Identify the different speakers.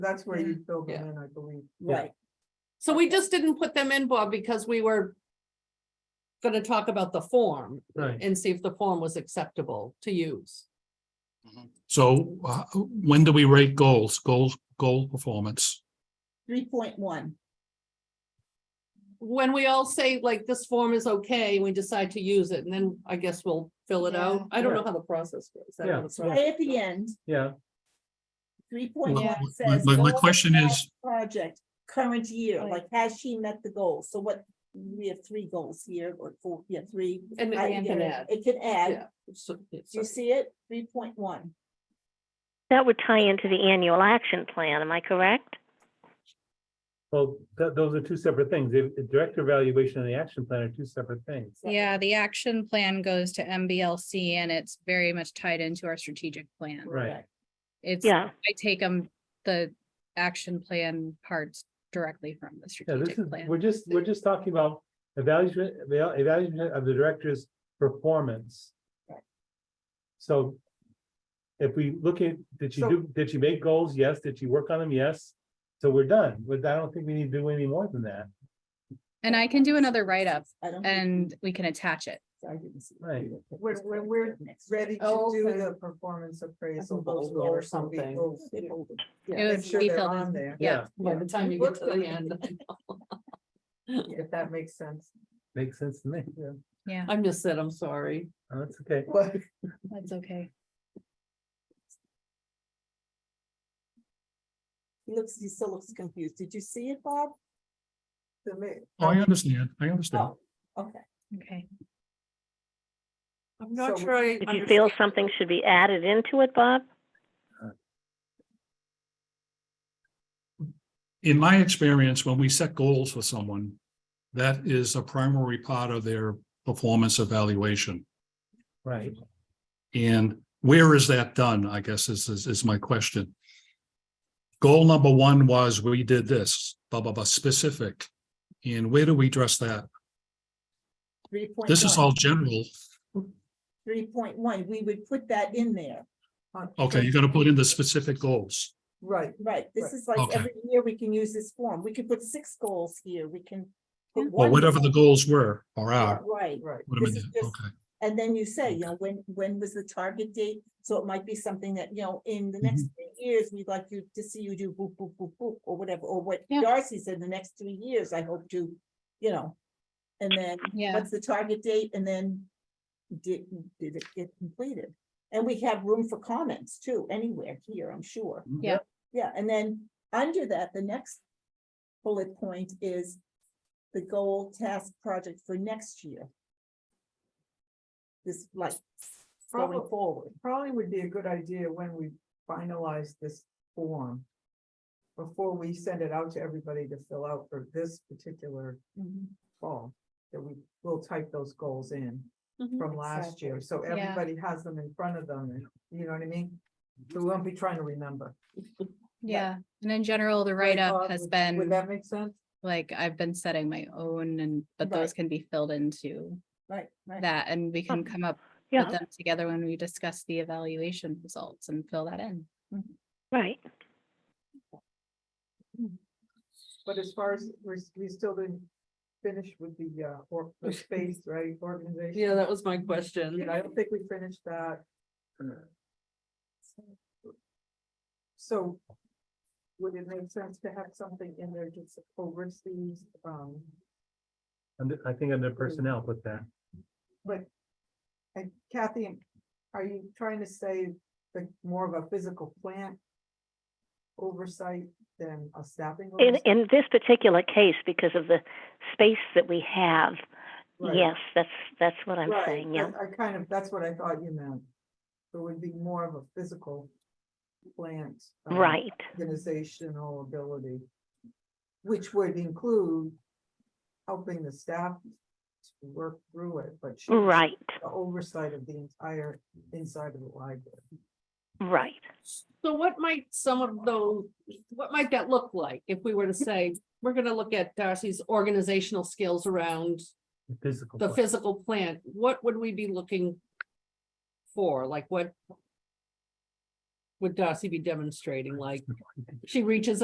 Speaker 1: That's where you fill them
Speaker 2: Yeah.
Speaker 1: in, I believe.
Speaker 3: Yeah.
Speaker 2: Right. So we just didn't put them in, Bob, because we were gonna talk about the form
Speaker 3: Right.
Speaker 2: and see if the form was acceptable to use.
Speaker 3: So uh, when do we rate goals, goals, goal performance?
Speaker 4: three point one.
Speaker 2: When we all say like this form is okay, we decide to use it, and then I guess we'll fill it out.
Speaker 4: Yeah.
Speaker 2: I don't know how the process goes. I don't know
Speaker 3: Yeah,
Speaker 2: the
Speaker 3: yeah.
Speaker 2: process.
Speaker 4: Right at the end,
Speaker 3: Yeah.
Speaker 4: three
Speaker 3: My
Speaker 4: point one says.
Speaker 3: my- my
Speaker 4: goals of
Speaker 3: question
Speaker 4: that
Speaker 3: is,
Speaker 4: Project, current year,
Speaker 2: Right.
Speaker 4: like has she met the goals? So what, we have three goals here or four, yeah, three.
Speaker 2: And
Speaker 4: I-
Speaker 2: it can add.
Speaker 4: It can
Speaker 2: Yeah.
Speaker 4: add.
Speaker 2: So- it's-
Speaker 4: Do you see it? Three point one.
Speaker 5: That would tie into the annual action plan, am I correct?
Speaker 6: Well, th- those are two separate things. The the director evaluation and the action plan are two separate things.
Speaker 7: Yeah, the action plan goes to MBLC and it's very much tied into our strategic plan.
Speaker 6: Right.
Speaker 7: It's, I
Speaker 5: Yeah,
Speaker 7: take them, the action plan parts directly from the
Speaker 6: Yeah, this
Speaker 7: strategic
Speaker 6: is,
Speaker 7: plan.
Speaker 6: we're just, we're just talking about evaluation, eval- evaluation of the director's performance.
Speaker 4: Right.
Speaker 6: So if we look at, did she
Speaker 1: So-
Speaker 6: do, did she make goals? Yes. Did she work on them? Yes. So we're done. But I don't think we need to do any more than that.
Speaker 7: And I can do another write-up
Speaker 4: I don't. think-
Speaker 7: and we can attach it.
Speaker 4: I didn't see it.
Speaker 6: Right.
Speaker 1: When- when we're
Speaker 4: Next.
Speaker 1: Ready to
Speaker 2: Oh,
Speaker 1: do
Speaker 2: okay.
Speaker 1: the performance appraisal.
Speaker 2: bold
Speaker 1: those
Speaker 2: or
Speaker 1: goals will be
Speaker 2: something.
Speaker 1: bold.
Speaker 4: They bolded.
Speaker 2: Yeah.
Speaker 7: It
Speaker 1: Make
Speaker 7: would
Speaker 1: sure
Speaker 7: be
Speaker 1: they're
Speaker 7: filled
Speaker 1: on
Speaker 7: in.
Speaker 1: there,
Speaker 7: Yeah,
Speaker 2: By the time you get to the end,
Speaker 1: if that makes sense.
Speaker 6: Makes sense to me. Yeah, Oh,
Speaker 7: yeah,
Speaker 2: I missed it, I'm sorry.
Speaker 6: that's okay.
Speaker 1: Well,
Speaker 7: that's okay.
Speaker 4: He looks, he still looks confused. Did you see it, Bob?
Speaker 1: to me-
Speaker 3: Oh, I understand, I understand.
Speaker 4: Oh, okay.
Speaker 7: Okay.
Speaker 2: I'm not
Speaker 1: So
Speaker 2: sure I.
Speaker 5: did you feel
Speaker 2: understand.
Speaker 5: something should be added into it, Bob?
Speaker 3: In my experience, when we set goals for someone, that is a primary part of their performance evaluation.
Speaker 6: Right.
Speaker 3: And where is that done, I guess is, is, is my question. Goal number one was we did this, blah, blah, blah, specific. And where do we address that?
Speaker 4: Three point one.
Speaker 3: This is all general.
Speaker 4: Three point one, we would put that in there.
Speaker 1: on-
Speaker 3: Okay, you're gonna put in the specific goals.
Speaker 1: Right,
Speaker 4: Right, this
Speaker 1: Right.
Speaker 4: is like
Speaker 3: Okay.
Speaker 4: every year we can use this form. We can put six goals here, we can. put
Speaker 3: Or
Speaker 4: one
Speaker 3: whatever
Speaker 4: goal.
Speaker 3: the goals were or
Speaker 4: Yeah,
Speaker 3: are.
Speaker 4: Right,
Speaker 1: right.
Speaker 3: What am I
Speaker 4: This is
Speaker 3: doing?
Speaker 4: just-
Speaker 3: Okay,
Speaker 4: and then you say, you know, when, when was the target date? So it might be something that, you know, in the next three years, we'd like you to see you do boop, boop, boop, boop, or whatever, or what
Speaker 7: Yeah.
Speaker 4: Darcy said, the next three years, I hope to, you know. And then,
Speaker 7: Yeah,
Speaker 4: what's the target date? And then did, did it get completed? And we have room for comments too, anywhere here, I'm sure.
Speaker 7: yeah,
Speaker 4: Yeah, and then under that, the next bullet point is the goal task project for next year. This like going
Speaker 1: Probably-
Speaker 4: forward,
Speaker 1: Probably would be a good idea when we finalize this form. Before we send it out to everybody to fill out for this particular fall, that we will type those goals in
Speaker 2: Mhm.
Speaker 1: from last
Speaker 4: Exactly.
Speaker 1: year, so
Speaker 7: Yeah.
Speaker 1: everybody has them in front of them, and you know what I mean? We won't be trying to remember.
Speaker 7: yeah. And in general, the
Speaker 1: Right,
Speaker 7: write-up
Speaker 1: Bob?
Speaker 7: has
Speaker 1: um, Would- Would
Speaker 7: been,
Speaker 1: that make sense?
Speaker 7: like, I've been setting my own and, but those
Speaker 4: Right.
Speaker 7: can be filled into
Speaker 4: right, right.
Speaker 7: that and we can come up
Speaker 5: Yeah,
Speaker 7: put them together when we discuss the evaluation results and fill that in.
Speaker 5: right.
Speaker 1: But as far as, we're, s- we still didn't finish with the, uh, or, the space, right, organization?
Speaker 2: Yeah, that was my question.
Speaker 1: Yeah, I don't think we finished that. So would it make sense to have something in there just overseas, um,
Speaker 6: And I think under personnel put that.
Speaker 1: but and Kathy, are you trying to say like more of a physical plant oversight than a staffing?
Speaker 5: In,
Speaker 1: oversight?
Speaker 5: in this particular case, because of the space that we have,
Speaker 1: Right.
Speaker 5: yes, that's, that's what I'm
Speaker 1: Right,
Speaker 5: saying, yeah.
Speaker 1: that's- I kind of, that's what I thought you meant. It would be more of a physical plant. um,
Speaker 5: Right,
Speaker 1: organizational ability, which would include helping the staff to work through it, but she would
Speaker 5: right,
Speaker 1: have the oversight of the entire inside of the library.
Speaker 5: right.
Speaker 2: So what might some of those, what might that look like if we were to say, we're gonna look at Darcy's organizational skills around
Speaker 6: Physical.
Speaker 2: the
Speaker 6: plan.
Speaker 2: physical plant, what would we be looking for? Like what? would Darcy be demonstrating? Like, she reaches